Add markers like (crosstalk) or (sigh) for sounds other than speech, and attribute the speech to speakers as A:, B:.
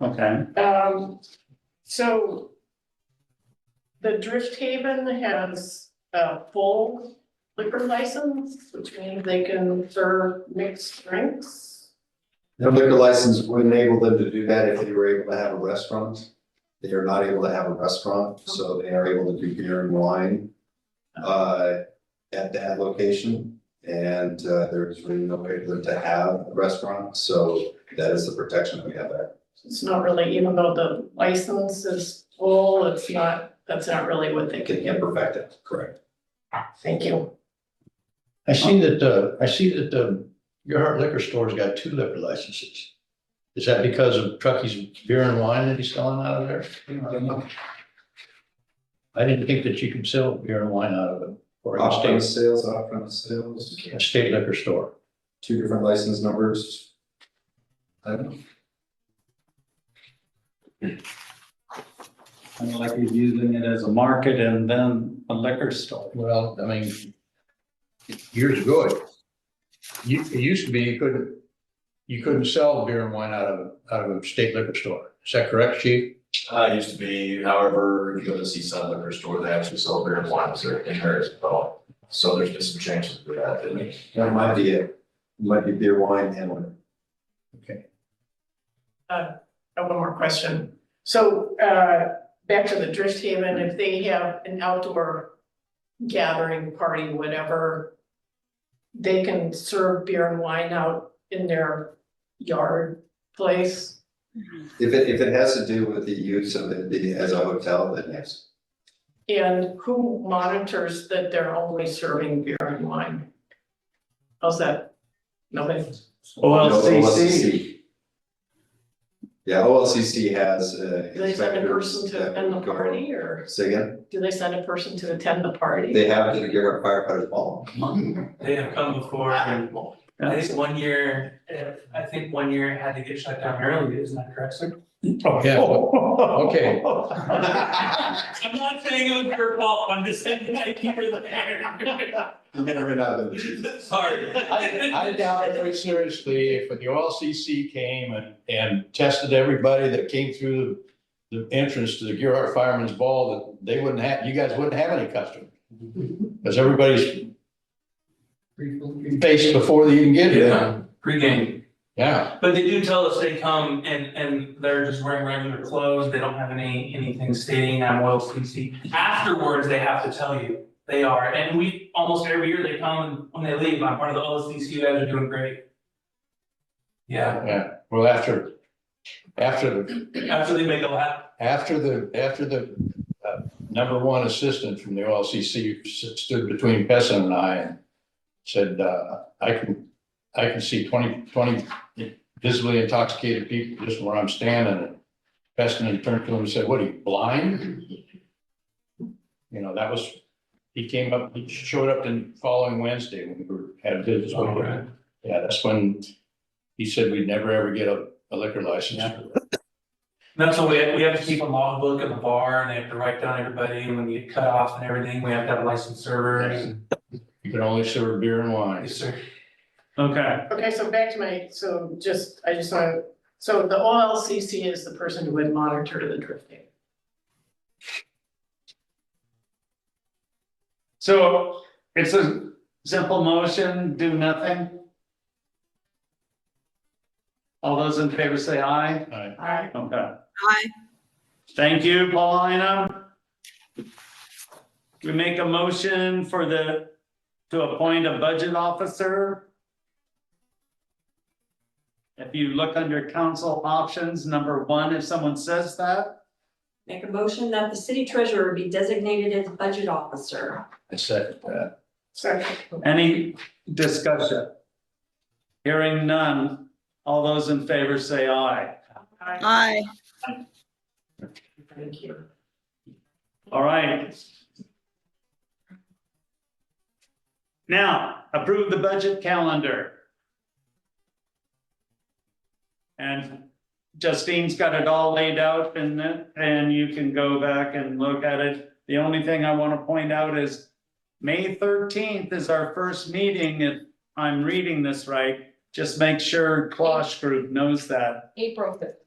A: Okay,
B: Um, so the Drift Haven has a full liquor license, which means they can serve mixed drinks.
C: The liquor license would enable them to do that if they were able to have a restaurant. They are not able to have a restaurant, so they are able to do beer and wine uh, at that location. And uh, there's really no way for them to have a restaurant, so that is the protection that we have there.
B: It's not really, even though the license is full, it's not, that's not really what they
C: They can
B: could get.
C: imperfect it, correct?
B: Thank you.
D: I see that, uh, I see that, um, your heart liquor store's got two liquor licenses. Is that because of Truckee's beer and wine that he's selling out of there? I didn't think that you could sell beer and wine out of it, or a state,
C: Off-premise sales, off-premise sales,
D: a state liquor store.
C: two different license numbers. I don't know.
A: and like he's using it as a market and then a liquor store.
D: Well, I mean, years ago, it, you, it used to be you couldn't, you couldn't sell beer and wine out of, out of a state liquor store. Is that correct, chief?
E: Uh, it used to be, however, if you go to Seaside Liquor Store, they actually sell beer and wine, so in there as well. So there's been some changes to that, didn't there?
C: That might be it. Might be beer, wine, and liquor.
B: I have one more question. So, uh, back to the Drift Haven, if they have an outdoor gathering, party, whatever, they can serve beer and wine out in their yard place.
C: If it, if it has to do with the use of it being as a hotel, then yes.
B: And who monitors that they're only serving beer and wine? How's that? Nobody?
A: OLCC,
C: OLCC. Yeah, OLCC has, uh.
B: Do they send a person
C: inspectors
B: to
C: that
B: attend the
C: would go-
B: party or
C: Say again,
B: do they send a person to attend the party?
C: they have to give our firefighters
B: (laughs)
C: all.
F: They have come before, and I think one year, eh, I think one year it had to get shut down early, isn't that correct, sir?
D: Yeah, okay.
F: I'm not saying it was your fault, I'm just saying that you were there.
C: You never know.
F: (laughs) Sorry.
D: I, I doubt it very seriously if the OLCC came and, and tested everybody that came through the, the entrance to the Gearhart Fireman's Ball, that they wouldn't have, you guys wouldn't have any customers. Because everybody's faced before they even get here.
F: Yeah, Pre-game,
D: Yeah,
F: but they do tell us they come and, and they're just wearing regular clothes, they don't have any, anything stating I'm OLCC. Afterwards, they have to tell you they are, and we, almost every year they come, and when they leave, I'm part of the OLCC, you guys are doing great. Yeah,
D: yeah. Well, after, after, the
F: after they make a lap
D: after the, after the, uh, number one assistant from the OLCC s- stood between Pessin and I and said, uh, I can, I can see 20 20 visibly intoxicated people just where I'm standing. And Pessin turned to him and said, what are you, blind? You know, that was, he came up, he showed up the following Wednesday when we were, had a business.
F: Oh, right.
D: Yeah, that's when he said we'd never ever get a a liquor license.
A: Yeah.
F: And That's why we have, we have to keep a logbook at the bar and they have to write down everybody and when you get cut off and everything, we have to have licensed servers.
D: You can only serve beer and wine.
F: Yes, sir.
A: (laughs) okay,
B: Okay, so back to my, so just, I just want, to so the OLCC is the person who would monitor the drifting.
A: so it's a simple motion, do nothing? All those in favor say aye,
D: Aye.
B: Alright.
A: okay,
G: Hi.
A: thank you, Paulina. We make a motion for the, to appoint a budget officer. If you look under council options, number one, if someone says that.
H: Make a motion that the city treasurer be designated as budget officer.
D: I uh, second that.
B: Second.
A: Any discussion? Hearing none, all those in favor say aye.
B: Alright,
G: Hi.
B: Thank you.
A: All right. Now, approve the budget calendar. And Justine's got it all laid out and then, and you can go back and look at it. The only thing I want to point out is May thirteenth is our first meeting, if I'm reading this right. Just make sure Klosh Group knows that.
H: April fifteenth.